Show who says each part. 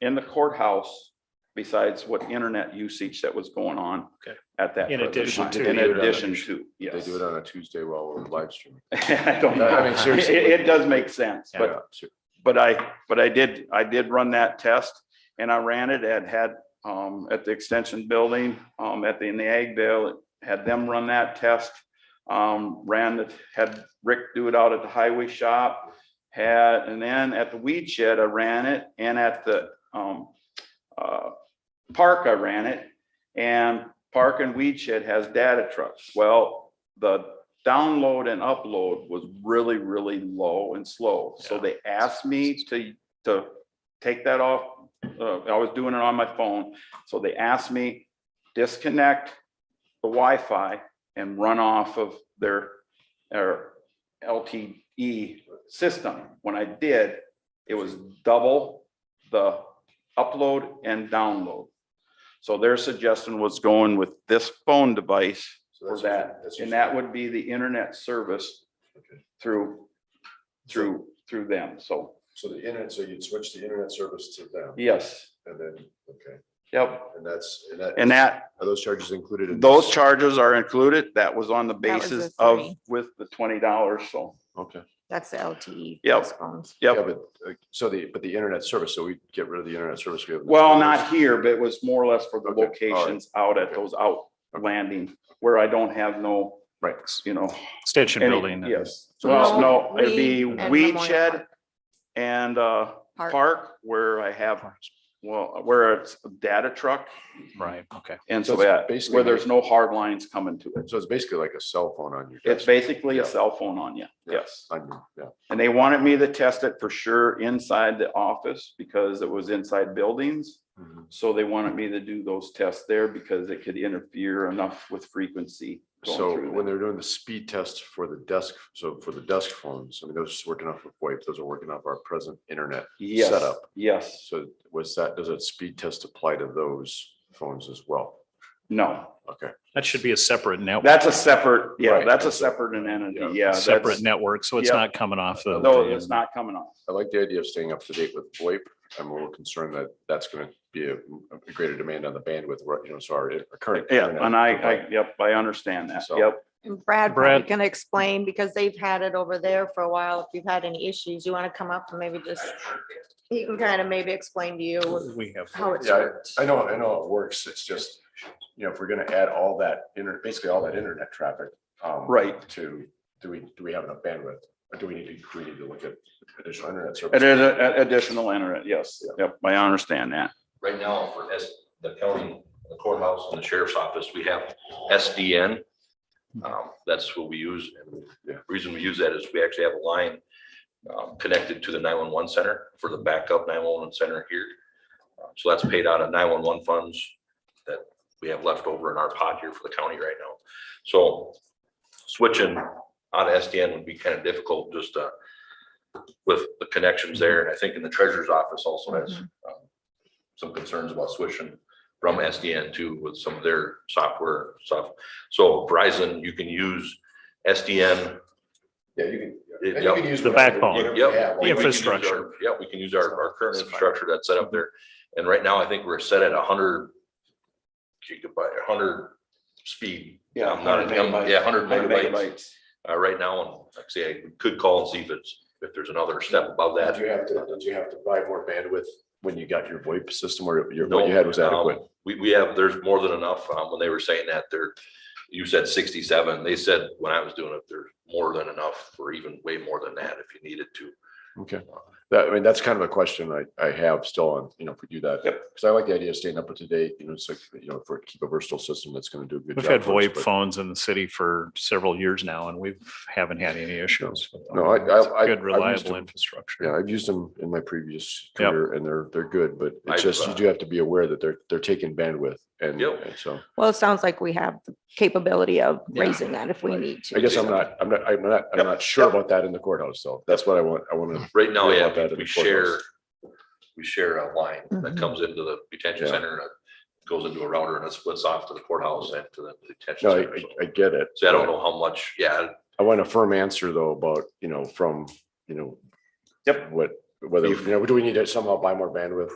Speaker 1: in the courthouse, besides what internet usage that was going on.
Speaker 2: Okay.
Speaker 1: At that.
Speaker 2: In
Speaker 1: present
Speaker 2: addition
Speaker 1: time.
Speaker 2: to.
Speaker 1: In
Speaker 2: They
Speaker 3: it
Speaker 2: do
Speaker 3: on a-
Speaker 1: addition to,
Speaker 3: They
Speaker 1: yes.
Speaker 3: do it on a Tuesday while we're live streaming.
Speaker 1: I don't know.
Speaker 3: I mean, seriously.
Speaker 1: It, it does make sense, but,
Speaker 3: Yeah, ser-
Speaker 1: but I, but I did, I did run that test and I ran it and had, um, at the extension building, um, at the, in the ag bill, had them run that test. Um, ran, it- had Rick do it out at the highway shop, had, and then at the weed shed, I ran it and at the, um, uh, park, I ran it. And park and weed shed has data trucks. Well, the download and upload was really, really low and slow. So
Speaker 2: Yeah.
Speaker 1: they asked me to, to take that off. Uh, I was doing it on my phone. So they asked me disconnect the Wi-Fi and run off of their, their LTE system. When I did, it was double the upload and download. So their suggestion was going with this phone device
Speaker 3: so
Speaker 1: for
Speaker 3: that's
Speaker 1: that,
Speaker 3: usually- that's
Speaker 1: and
Speaker 3: usually-
Speaker 1: that would be the internet service
Speaker 3: Okay.
Speaker 1: through, through, through them, so,
Speaker 3: So the internet, so you'd switch the internet service to them
Speaker 1: yes,
Speaker 3: and then, okay,
Speaker 1: yep.
Speaker 3: and that's, and that.
Speaker 1: And that,
Speaker 3: Are those charges included in?
Speaker 1: those
Speaker 3: this?
Speaker 1: charges are included, that was on the
Speaker 4: That was the
Speaker 1: basis of,
Speaker 4: three.
Speaker 1: with the twenty dollars, so,
Speaker 3: Okay.
Speaker 4: That's the E LTE.
Speaker 1: Yep.
Speaker 4: fixed phones.
Speaker 3: Yeah,
Speaker 1: yep.
Speaker 3: but, uh, so the, but the internet service, so we get rid of the internet service. we have in the
Speaker 1: Well,
Speaker 3: schools.
Speaker 1: not here, but it was more or less for the
Speaker 3: Okay, all right.
Speaker 1: locations out at
Speaker 3: Okay.
Speaker 1: those out landing, where I don't have no,
Speaker 3: Right.
Speaker 1: you know,
Speaker 2: Extension
Speaker 1: Any-
Speaker 2: building.
Speaker 1: Yes,
Speaker 3: So
Speaker 1: well, no,
Speaker 4: weed
Speaker 1: it'd be
Speaker 4: and
Speaker 1: weed
Speaker 4: Memorial
Speaker 1: shed
Speaker 4: Park.
Speaker 1: and uh
Speaker 4: Park.
Speaker 1: park where I have, well, where it's a data truck.
Speaker 2: Right, okay.
Speaker 1: And
Speaker 3: So
Speaker 1: so
Speaker 3: it's
Speaker 1: that,
Speaker 3: basically
Speaker 1: where
Speaker 3: like-
Speaker 1: there's no hard lines coming to it.
Speaker 3: So it's basically like a cell phone on your.
Speaker 1: It's
Speaker 3: desk,
Speaker 1: basically a
Speaker 3: Yeah.
Speaker 1: cell phone on you,
Speaker 3: Yeah.
Speaker 1: yes.
Speaker 3: on your- Yeah,
Speaker 1: And they wanted me to test it for sure inside the office because it was inside buildings.
Speaker 3: Mhm.
Speaker 1: So they wanted me to do those tests there because it could interfere enough with frequency. going
Speaker 3: so
Speaker 1: through
Speaker 3: when
Speaker 1: there.
Speaker 3: they're doing the speed test for the desk, so for the desk phones, I mean, those working off of VoIP, those are working off our present internet.
Speaker 1: Yes,
Speaker 3: setup.
Speaker 1: yes,
Speaker 3: So was that, does that speed test apply to those phones as well?
Speaker 1: no,
Speaker 3: Okay,
Speaker 2: That should be a separate network,
Speaker 1: that's a separate, yeah,
Speaker 3: Right,
Speaker 1: that's a
Speaker 3: that's a-
Speaker 1: separate entity,
Speaker 3: yeah,
Speaker 1: yeah. that's-
Speaker 2: separate network, so it's
Speaker 1: yeah.
Speaker 2: not coming off the.
Speaker 1: No, it's not coming off.
Speaker 3: I like the idea of staying up to date with VoIP. I'm a little concerned that that's going to be a a greater demand on the bandwidth, right, you know, sorry, our current.
Speaker 1: Yeah,
Speaker 3: internet
Speaker 1: and I, I,
Speaker 3: provider.
Speaker 1: yep, I understand that,
Speaker 3: So-
Speaker 1: yep.
Speaker 4: And Brad
Speaker 2: Brad.
Speaker 4: probably can explain because they've had it over there for a while. If you've had any issues, you want to come up and maybe just, he can kind of maybe explain to you
Speaker 2: We have.
Speaker 4: how it's
Speaker 3: Yeah,
Speaker 4: worked.
Speaker 3: I know, I know it works. It's just, you know, if we're going to add all that internet, basically all that internet traffic. um,
Speaker 1: Right.
Speaker 3: To, do we, do we have enough bandwidth? Or do we need to, do we need to look at additional internet service?
Speaker 1: It is a- a- additional internet, yes, yep, I understand that.
Speaker 5: right now for S, the county, the courthouse and the sheriff's office, we have SDN. Um, that's what we use. And the reason we use that is we actually have a line um, connected to the nine-one-one center for the backup nine-one-one center here. Uh, So that's paid out of nine-one-one funds that we have left over in our pot here for the county right now. So switching out of SDN would be kind of difficult just uh, with the connections there. And I think in the treasurer's office also has um, some concerns about switching from SDN to with some of their software stuff. So Verizon, you can use SDN.
Speaker 3: Yeah, you can.
Speaker 5: Yep.
Speaker 3: and you can use
Speaker 2: The
Speaker 3: whatever-
Speaker 2: backbone.
Speaker 3: whatever we
Speaker 5: Yep.
Speaker 3: have,
Speaker 2: The
Speaker 3: like-
Speaker 2: infrastructure.
Speaker 5: Yeah, we can use our, our current
Speaker 3: That's fine.
Speaker 5: infrastructure that's set up there. And right now, I think we're set at hundred gigabyte, hundred speed. I'm not- I'm- Yeah, hundred megabytes, uh, right now. And like I say, I could call and see if it's, if there's another step above that.
Speaker 3: Did you have to, did you have to buy more bandwidth when you got your VoIP system or your,
Speaker 5: No,
Speaker 3: what you had was
Speaker 5: um,
Speaker 3: adequate?
Speaker 5: We, we have, there's more than enough. Um, when they were saying that, there, you said sixty-seven, they said when I was doing it, there's more than enough or even way more than that if you needed to.
Speaker 3: Okay, that, I mean, that's kind of a question I, I have still on, you know, if we do that.
Speaker 1: Yep.
Speaker 3: Because I like the idea of staying up to date, you know, it's like, you know, for, keep a versatile system that's gonna do a good job.
Speaker 2: We've had
Speaker 3: for us,
Speaker 2: VoIP
Speaker 3: but-
Speaker 2: phones in the city for several years now, and we haven't had any issues. with them.
Speaker 3: No, I- I- I-
Speaker 2: It's Good,
Speaker 3: I've used
Speaker 2: reliable
Speaker 3: them.
Speaker 2: infrastructure.
Speaker 3: Yeah, I've used them in my previous
Speaker 2: Yep.
Speaker 3: career and they're, they're good, but
Speaker 5: I've,
Speaker 3: it's just, you
Speaker 5: uh,
Speaker 3: do have to be aware that they're, they're taking bandwidth and,
Speaker 5: Yep.
Speaker 3: and so.
Speaker 4: Well, it sounds like we have the capability of
Speaker 5: Yeah.
Speaker 4: raising that if we need
Speaker 3: I
Speaker 4: to.
Speaker 3: guess I'm not, I'm not, I'm not, I'm
Speaker 5: Yep.
Speaker 3: not sure about that in the courthouse, though. That's what I want, I wanna,
Speaker 5: Right now,
Speaker 3: Hear
Speaker 5: yeah,
Speaker 3: about that
Speaker 5: we-
Speaker 3: in
Speaker 5: we
Speaker 3: the courthouse.
Speaker 5: share, we share a line that
Speaker 4: Mhm.
Speaker 5: comes into the detention
Speaker 3: Yeah.
Speaker 5: center and it goes into a router and it splits off to the courthouse and to the detention.
Speaker 3: no, I,
Speaker 5: center.
Speaker 3: I- I get it.
Speaker 5: So I don't
Speaker 3: but
Speaker 5: know how much, yeah,
Speaker 3: I want a firm answer though about, you know, from, you know.
Speaker 1: Yep.
Speaker 3: What, whether, you know, do we need to somehow buy more bandwidth?